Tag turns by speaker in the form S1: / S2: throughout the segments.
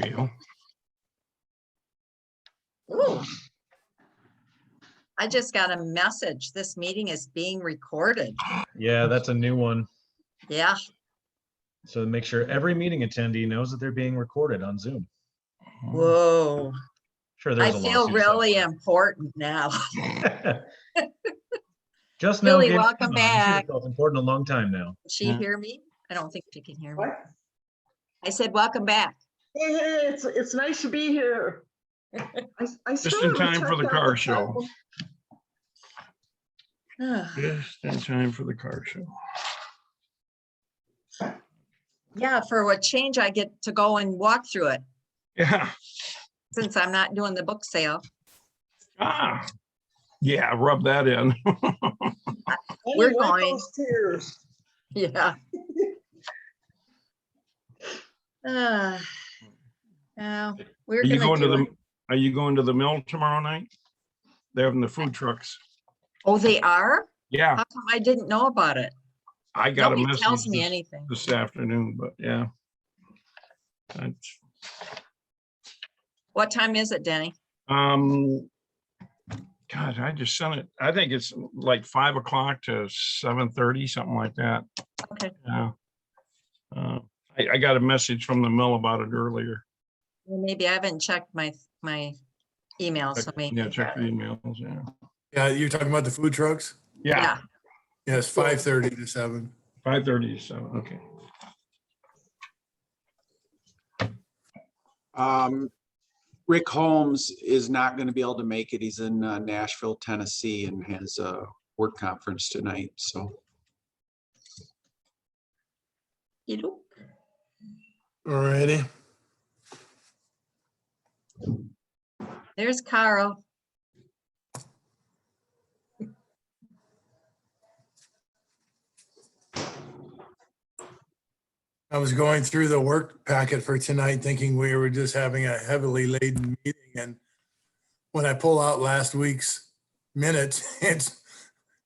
S1: deal.
S2: Ooh. I just got a message. This meeting is being recorded.
S3: Yeah, that's a new one.
S2: Yeah,
S3: So make sure every meeting attendee knows that they're being recorded on Zoom.
S1: Oh.
S2: whoa.
S3: Sure,
S2: I
S3: there's a
S2: feel
S3: lawsuit out
S2: really important now.
S3: there. Just now.
S2: Billy,
S3: Gabe
S2: welcome
S3: Kavanaugh, you should
S2: back.
S3: have felt Important a long time now.
S2: Can She
S1: Yeah.
S2: hear me? I don't think she can hear me.
S4: What?
S2: I said, welcome back.
S4: Hey, hey, it's, it's nice to be here. Just
S1: Just in time for the car show.
S2: Yeah,
S1: Just in time for the car show.
S2: for a change, I get to go and walk through it
S1: Yeah.
S2: since I'm not doing the book sale.
S1: Ah. Yeah, rub that in.
S2: We're going.
S4: Tears.
S2: Yeah. Ah. Now, we're
S1: Are you
S2: gonna
S1: going to
S2: do
S1: the,
S2: it.
S1: are you going to the mill tomorrow night? They're having the food trucks.
S2: Oh, they are?
S1: Yeah,
S2: How come I didn't know about it?
S1: I got a
S2: Uh, Nobody tells
S1: message
S2: me
S1: this-
S2: anything.
S1: this afternoon, but yeah. That's,
S2: What time is it, Denny?
S1: Um, God, I just sent it. I think it's like five o'clock to seven thirty, something like that.
S2: Okay.
S1: Yeah. Uh, I, I got a message from the mill about it earlier.
S2: Well, Maybe I haven't checked my, my email, so
S1: Check-
S2: maybe.
S1: Yeah, check the emails, yeah.
S5: Yeah, you're talking about the food trucks?
S1: Yeah,
S5: Yes, five thirty to seven.
S1: five thirty to seven, okay.
S6: Um, Rick Holmes is not going to be able to make it. He's in uh, Nashville, Tennessee and has a work conference tonight, so.
S2: You do?
S5: Alrighty.
S2: There's Carl.
S5: I was going through the work packet for tonight, thinking we were just having a heavily laden meeting and when I pull out last week's minutes, it's,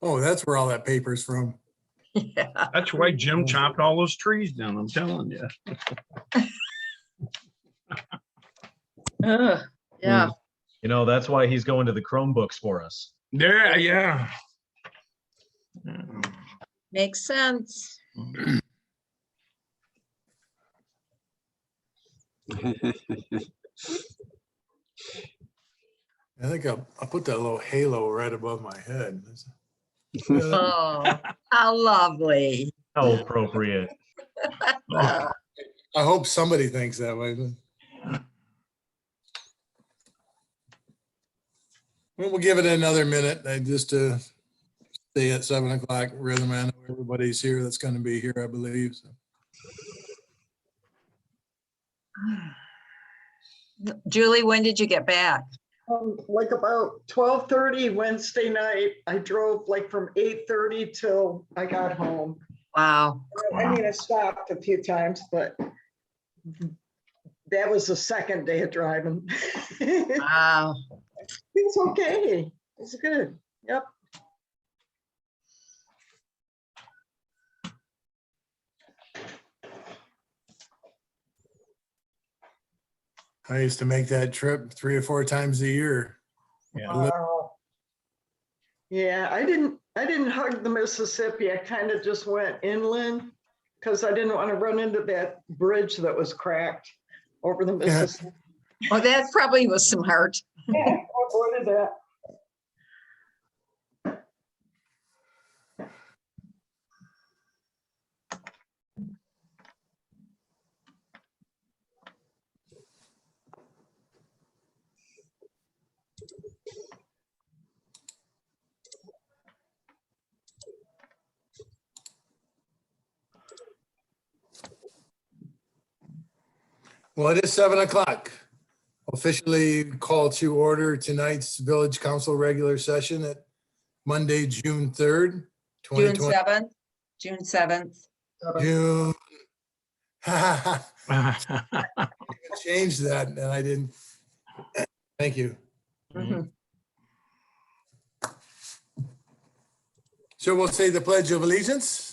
S5: oh, that's where all that paper's from.
S2: Yeah.
S1: That's why Jim chopped all those trees down, I'm telling you.
S2: Ugh, Yeah.
S3: You know, that's why he's going to the Chromebooks for us.
S1: Yeah, yeah. Yeah.
S2: Makes sense.
S5: I think I'll, I'll put that little halo right above my head.
S2: Oh, how lovely.
S3: How appropriate.
S1: Oh.
S2: Uh,
S5: I hope somebody thinks that way. but- Well, we'll give it another minute, I just, uh, stay at seven o'clock rhythm, I know everybody's here that's gonna be here, I believe, so.
S2: Julie, when did you get back?
S4: Um, Like about twelve thirty Wednesday night, I drove like from eight thirty till I got home.
S2: Wow.
S4: I mean, I stopped a few times, but that was the second day of driving. It's
S2: Wow.
S4: okay. It's good. Yep.
S5: I used to make that trip three or four times a year. Yeah.
S4: Wow. Yeah, I didn't, I didn't hug the Mississippi. I kind of just went inland because I didn't want to run into that bridge that was cracked over the
S5: Yeah.
S4: Mississippi.
S2: Well, Oh, that probably was smart.
S4: Yeah, I avoided that.
S5: Well, it is seven o'clock. Officially call to order tonight's village council regular session at Monday, June third, twenty
S2: June
S5: twenty.
S2: seventh, June seventh.
S5: June. I
S1: Yeah.
S5: Changed that and I didn't. Thank you. So we'll say the pledge of allegiance.